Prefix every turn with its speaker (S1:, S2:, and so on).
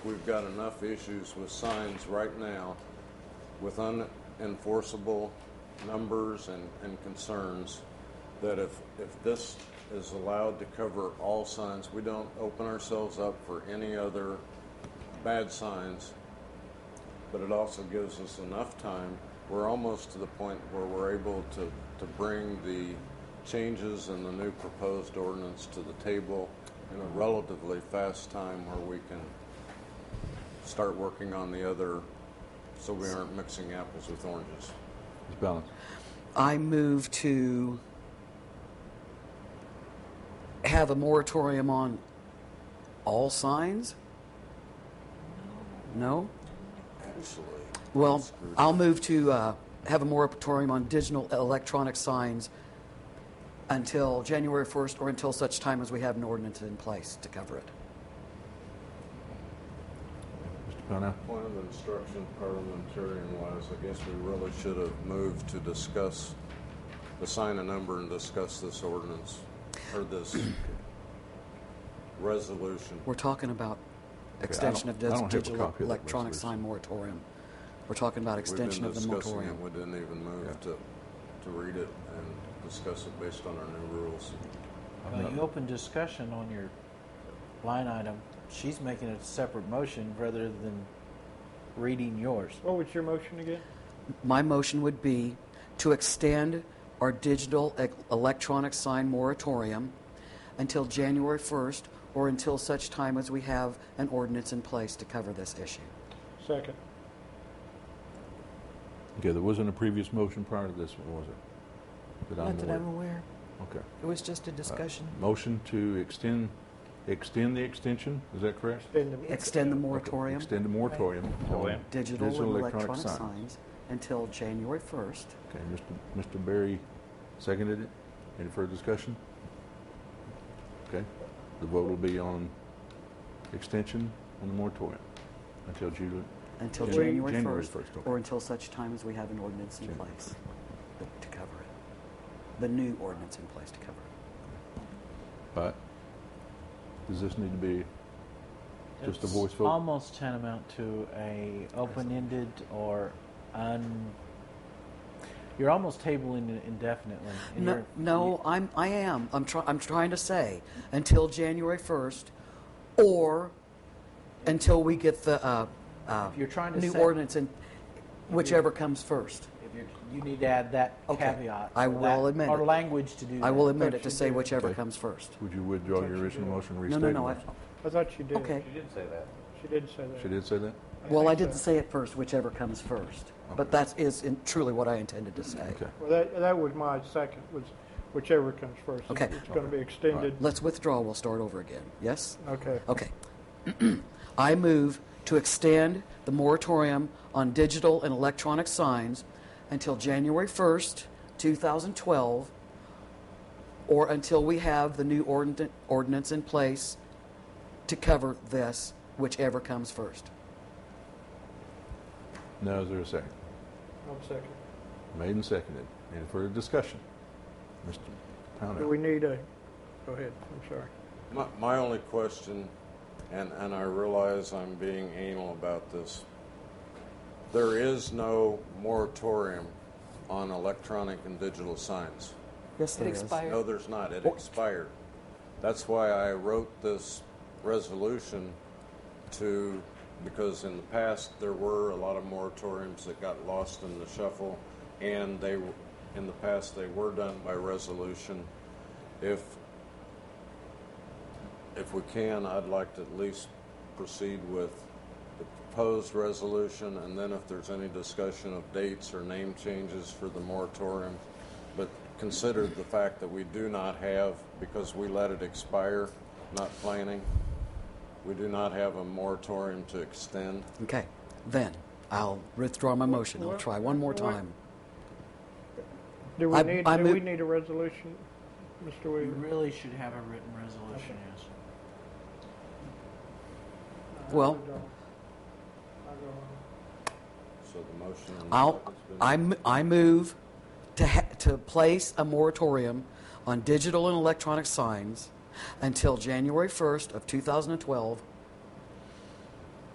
S1: We've got enough issues with signs right now with unenforceable numbers and, and concerns that if, if this is allowed to cover all signs, we don't open ourselves up for any other bad signs. But it also gives us enough time. We're almost to the point where we're able to, to bring the changes in the new proposed ordinance to the table in a relatively fast time where we can start working on the other so we aren't mixing apples with oranges.
S2: Ms. Balance.
S3: I move to have a moratorium on all signs? No?
S1: Actually,
S3: Well, I'll move to uh, have a moratorium on digital electronic signs until January 1st or until such time as we have an ordinance in place to cover it.
S2: Mr. Pennell.
S1: point of instruction parliamentarian wise, I guess we really should have moved to discuss, assign a number and discuss this ordinance or this resolution.
S3: We're talking about extension of
S2: I don't
S3: dis-
S2: have a
S3: digital
S2: copy of that
S3: electronic
S2: resolution.
S3: sign moratorium. We're talking about
S1: We've been
S3: extension of the
S1: discussing it,
S3: moratorium.
S1: we didn't even
S2: Yeah.
S1: move to, to read it and discuss it based on our new rules.
S4: Well, you open discussion on your line item. She's making a separate motion rather than reading yours.
S5: What was your motion again?
S3: My motion would be to extend our digital e- electronic sign moratorium until January 1st or until such time as we have an ordinance in place to cover this issue.
S5: Second.
S2: Okay, there wasn't a previous motion prior to this one, was it? That I'm
S6: Not
S2: aware- Uh,
S6: that I'm aware.
S2: Okay.
S6: It was just a discussion.
S2: Motion to extend, extend the extension, is that correct?
S5: Then the-
S3: Extend the
S2: Okay,
S3: moratorium,
S2: Extend the moratorium on
S5: Moratorium.
S3: digital and electronic signs until January 1st.
S2: Okay, Mr. Mr. Berry seconded it. Any further discussion? Okay, the vote will be on extension on the moratorium until June.
S3: Until
S2: Jan-
S3: January
S2: January
S3: 1st,
S2: 1st, okay.
S3: or until such time as we have an ordinance in
S2: January
S3: place to cover it. The new ordinance in place to cover it.
S2: But does this need to be just a
S4: It's
S2: voice vote?
S4: Almost tantamount to a open-ended or un. You're almost tabling it indefinitely. and
S3: No,
S4: you're-
S3: no, I'm, I am. I'm trying, I'm trying to say until January 1st or until we get the, uh, uh,
S4: If you're trying to
S3: new
S4: say-
S3: ordinance and whichever comes first.
S4: If you're, you need to add that
S3: Okay.
S4: caveat.
S3: I
S4: or
S3: will
S4: that-
S3: admit
S4: Or
S3: it.
S4: language to do that.
S3: I will admit it to say whichever
S2: Okay.
S3: comes first.
S2: Would you withdraw your original motion and
S3: No,
S2: restate
S3: no,
S2: it?
S3: no, I,
S5: I thought she did.
S3: okay.
S5: She did say that.
S2: She did say that?
S3: Well, I
S5: think
S3: didn't
S5: so.
S3: say it first, whichever comes first.
S2: Okay.
S3: But that is in- truly what I intended to say.
S2: Okay.
S5: Well, that, that was my second, was whichever comes first.
S3: Okay.
S5: It's going to be extended.
S3: Let's withdraw, we'll start over again. Yes?
S5: Okay.
S3: Okay. I move to extend the moratorium on digital and electronic signs until January 1st, 2012, or until we have the new ordin- ordinance in place to cover this, whichever comes first.
S2: Now, is there a second?
S3: Oh.
S5: One second.
S2: Made and seconded. Any further discussion? Mr.
S5: Do we
S2: Pownell?
S5: need a, go ahead, I'm sorry.
S1: My, my only question, and, and I realize I'm being anal about this, there is no moratorium on electronic and digital signs.
S3: Yes,
S6: It
S3: there is.
S6: expired.
S1: No, there's not. It expired. That's why I wrote this resolution to, because in the past, there were a lot of moratoriums that got lost in the shuffle, and they, w- in the past, they were done by resolution. If, if we can, I'd like to at least proceed with the proposed resolution, and then if there's any discussion of dates or name changes for the moratorium. But consider the fact that we do not have, because we let it expire, not planning, we do not have a moratorium to extend.
S3: Okay, then, I'll withdraw my motion. I'll
S5: what-
S3: try one more
S5: what-
S3: time.
S5: Do we
S3: I-
S5: need,
S3: I
S5: do
S3: move-
S5: we need a resolution, Mr.
S4: You
S5: Weaver?
S4: really should have a written resolution, yes.
S3: Well-
S1: So the motion. and
S3: I'll,
S1: second's been-
S3: I, m- I move to, ha- to place a moratorium on digital and electronic signs until January 1st of 2012